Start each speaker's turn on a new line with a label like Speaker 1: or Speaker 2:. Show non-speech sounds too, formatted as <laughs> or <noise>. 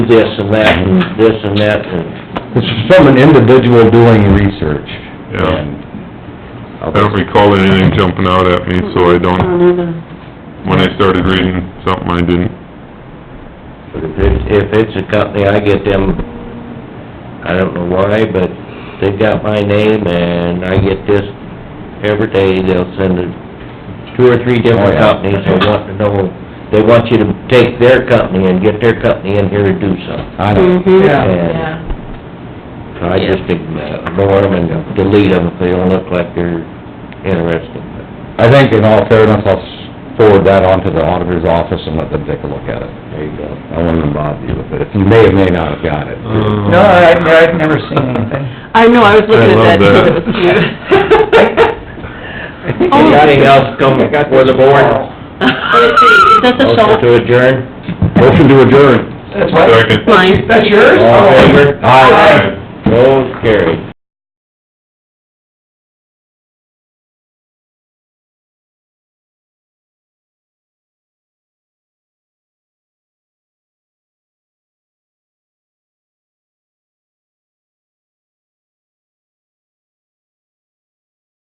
Speaker 1: this and that and this and that and...
Speaker 2: It's from an individual doing research.
Speaker 3: Yeah.
Speaker 2: and-
Speaker 3: I don't recall anything jumping out at me, so I
Speaker 4: Oh,
Speaker 3: don't, when I started reading something, I didn't,
Speaker 1: But if it's, if it's a company, I get them, I don't know why, but they got my name and I get this every day, they'll send it two or three
Speaker 2: Oh,
Speaker 1: different
Speaker 2: yeah.
Speaker 1: companies that want to know, they want you to take their company and get their company in here to do something.
Speaker 2: I don't,
Speaker 1: Mm-hmm.
Speaker 2: yeah,
Speaker 1: And So I just ignore them and delete them if they don't look like they're interested.
Speaker 2: I think in all fairness, I'll s- forward that on to the auditor's office and let them take a look at it.
Speaker 1: There you go.
Speaker 2: I wouldn't bother you with it, if you may or may not have got it.
Speaker 1: Mm-hmm.
Speaker 5: No, I, I've never seen
Speaker 2: <laughs>
Speaker 5: anything.
Speaker 4: I know, I was
Speaker 3: I
Speaker 4: looking at that, too,
Speaker 3: love
Speaker 4: it was cute.
Speaker 5: I think I got
Speaker 1: Anything else come
Speaker 5: Oh. I got
Speaker 1: before the board?
Speaker 4: Is that the
Speaker 1: Motion
Speaker 4: salt?
Speaker 1: to adjourn?
Speaker 2: Motion to adjourn.
Speaker 5: That's what?
Speaker 3: Second.
Speaker 4: Mine.
Speaker 5: That's yours?
Speaker 1: All in favor?
Speaker 2: Aye.
Speaker 1: Motion carried.